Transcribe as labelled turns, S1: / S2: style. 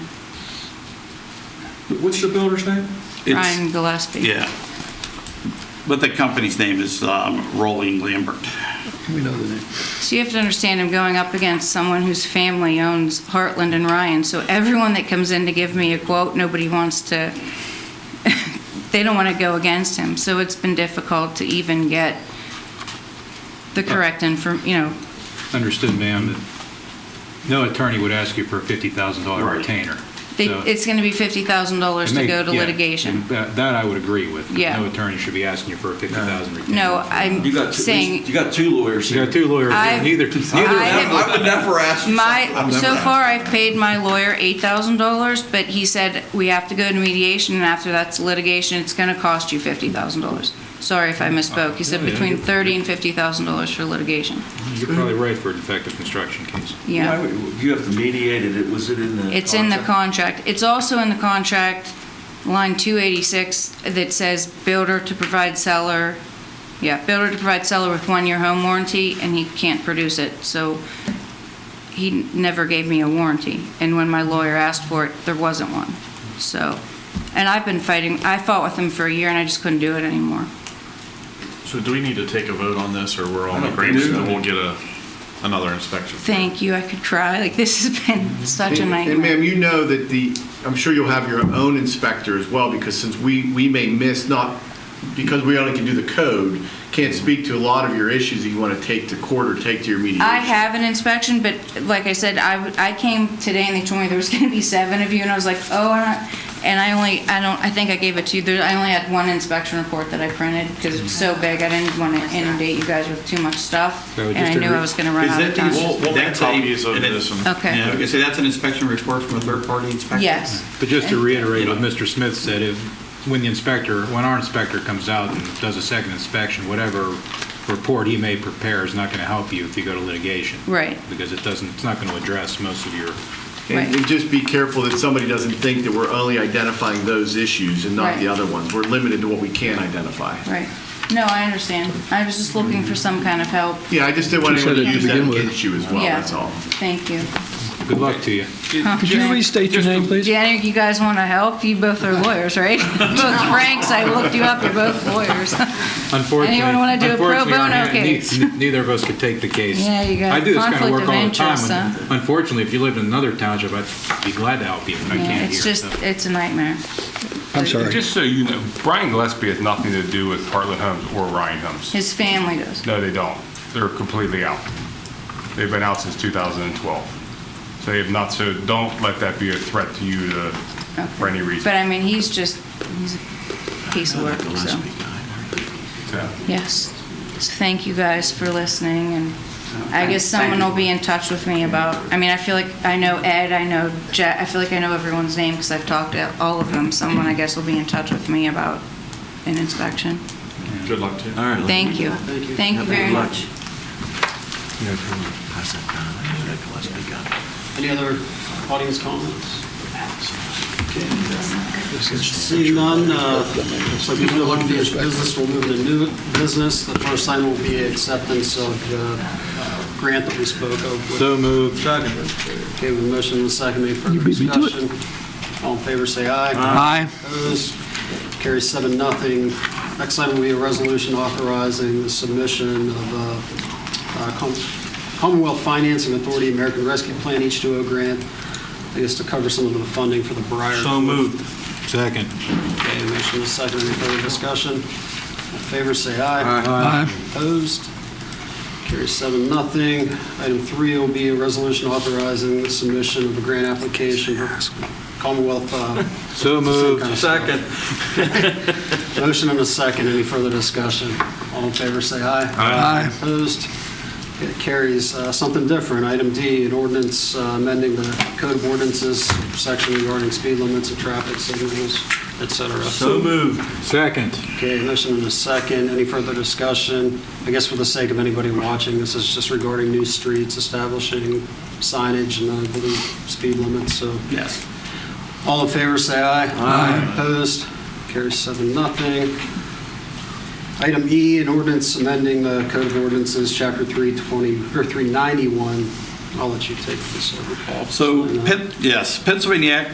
S1: What's the builder's name?
S2: It's-
S3: Ryan Gillespie.
S2: Yeah. But the company's name is um, Rolling Lambert.
S4: We know the name.
S3: So you have to understand, I'm going up against someone whose family owns Heartland and Ryan, so everyone that comes in to give me a quote, nobody wants to, they don't want to go against him, so it's been difficult to even get the correct inform, you know,
S5: Understood, ma'am, that no attorney would ask you for a $50,000
S2: Right.
S5: retainer.
S3: they-
S5: So-
S3: it's going to be $50,000
S5: It
S3: to
S5: may-
S3: go to
S5: yeah,
S3: litigation.
S5: That that I would agree with.
S3: Yeah.
S5: No attorney should be asking you for a $50,000 retainer.
S3: No,
S1: You
S3: I'm
S1: got two,
S3: saying,
S1: you got two lawyers
S5: You
S1: here.
S5: got two lawyers,
S3: I've-
S5: neither, neither
S3: I-
S1: I would never ask. for something.
S3: My,
S1: I've
S3: so
S1: never
S3: far, I've paid my lawyer $8,000, but he said, we have to go to mediation, and after that's litigation, it's going to cost you $50,000. Sorry if I misspoke. He said
S5: Yeah, yeah,
S3: between
S5: you're-
S3: $30,000 and $50,000 for litigation.
S5: You're probably right for a defective construction case.
S1: Why
S3: Yeah.
S1: would- You have to mediate it, was it in the?
S3: It's in the
S1: contract?
S3: contract. It's also in the contract, line 286, that says builder to provide seller, yeah, builder to provide seller with one-year home warranty, and he can't produce it, so he never gave me a warranty. And when my lawyer asked for it, there wasn't one. So, and I've been fighting, I fought with him for a year, and I just couldn't do it anymore.
S6: So do we need to take a vote on this, or we're all
S1: I
S6: in
S1: don't
S6: agreement
S1: think so.
S6: that we'll get a, another inspection?
S3: Thank you, I could cry, like, this has been such a
S4: And-
S3: nightmare.
S4: And ma'am, you know that the, I'm sure you'll have your own inspector as well, because since we, we may miss, not, because we only can do the code, can't speak to a lot of your issues that you want to take to court or take to your mediation.
S3: I have an inspection, but like I said, I, w- I came today and they told me there was going to be seven of you, and I was like, oh, and I- and I only, I don't, I think I gave it to you, there, I only had one inspection report that I printed, because it's so big, I didn't want to inundate you guys with too much stuff,
S5: No,
S3: and I
S5: just
S3: knew
S5: a re-
S3: I was going to run
S2: Is
S3: out
S2: that
S3: of
S2: the-
S3: time.
S6: We'll, we'll make
S2: That's a-
S6: copies of
S2: and it-
S6: this and.
S2: Yeah, I
S3: Okay,
S2: was gonna say, that's an inspection report from a third-party inspector?
S3: yes.
S5: But just to reiterate what Mr. Smith said, if, when the inspector, when our inspector comes out and does a second inspection, whatever report he may prepare is not going to help you if you go to litigation.
S3: Right.
S5: Because it doesn't, it's not going to address most of your
S3: Right.
S4: And and just be careful that somebody doesn't think that we're only identifying those issues and not the
S3: Right.
S4: other ones. We're limited to what we can identify.
S3: Right, no, I understand, I was just looking for some kind of help,
S4: Yeah, I just didn't want
S7: She said
S4: anyone to
S7: it to
S4: use that
S7: begin with.
S4: against you as well,
S3: Yeah.
S4: that's all.
S3: thank you.
S5: Good luck to you.
S7: Could you restate your name, please?
S3: Yeah, you guys want to help, you both are lawyers, right? Both Franks, I looked you up, you're both lawyers.
S5: Unfortunately,
S3: Anyone wanna do a pro
S5: unfortunately,
S3: bono
S5: our- ne-
S3: case?
S5: ne- Neither of us could take the case.
S3: Yeah, you got
S5: I do this kind of
S3: conflict
S5: work
S3: of
S5: all the time.
S3: interest,
S5: and
S3: huh?
S5: Unfortunately, if you lived in another township, I'd be glad to help you, but I
S3: Yeah,
S5: can't
S3: It's
S5: here.
S3: just,
S5: so.
S3: it's a nightmare.
S7: I'm sorry.
S8: Just so you know, Brian Gillespie has nothing to do with Heartland Homes or Ryan Homes.
S3: His family does.
S8: No, they don't. They're completely out. They've been out since 2012. So they have not, so don't let that be a threat to you to, for any
S3: But
S8: reason.
S3: I mean, he's just, he's a piece of work, so,
S8: So-
S3: yes. So thank you guys for listening, and I guess someone will be in touch with me about, I mean, I feel like I know Ed, I know Jack, I feel like I know everyone's name because I've talked to all of them. Someone, I guess, will be in touch with me about an inspection.
S6: Good luck to you.
S1: All right. let-
S3: Thank you. Thank you very much.
S9: Any other audience comments? Seeing none, uh, so we move on to business, we'll move to new business. The first item will be acceptance of uh, grant that we spoke of.
S5: So moved.
S9: Okay, with motion and second, any further
S7: beat me to it.
S9: discussion? All in favor, say aye.
S7: Aye.
S9: Opposed? Carries seven, nothing. Next item will be a resolution authorizing the submission of uh, uh, Com- Commonwealth Financing Authority American Rescue Plan H2O grant, I guess to cover some of the funding for the Briar.
S6: So moved.
S5: Second.
S9: Okay, motion is second. Any further discussion? All in favor, say aye.
S7: Aye.
S9: Opposed? Carries seven, nothing. Item three will be a resolution authorizing the submission of a grant application for Commonwealth uh,
S5: So moved.
S9: Second. Motion and a second. Any further discussion? All in favor, say aye.
S7: Aye.
S9: Opposed? It carries. Uh, Something different. Item D, an ordinance uh, amending the code of ordinances section regarding speed limits and traffic signals, et cetera.
S6: So moved.
S5: Second.
S9: Okay, motion and a second. Any further discussion? I guess for the sake of anybody watching, this is just regarding new streets, establishing signage and I believe speed limits, so.
S2: Yes.
S9: All in favor, say aye. Aye. Opposed? Carries seven, nothing. Item E, an ordinance amending the Code of Ordinances, Chapter 320, or 391. I'll let you take this over, Paul.
S2: So, Penn- yes, Pennsylvania Act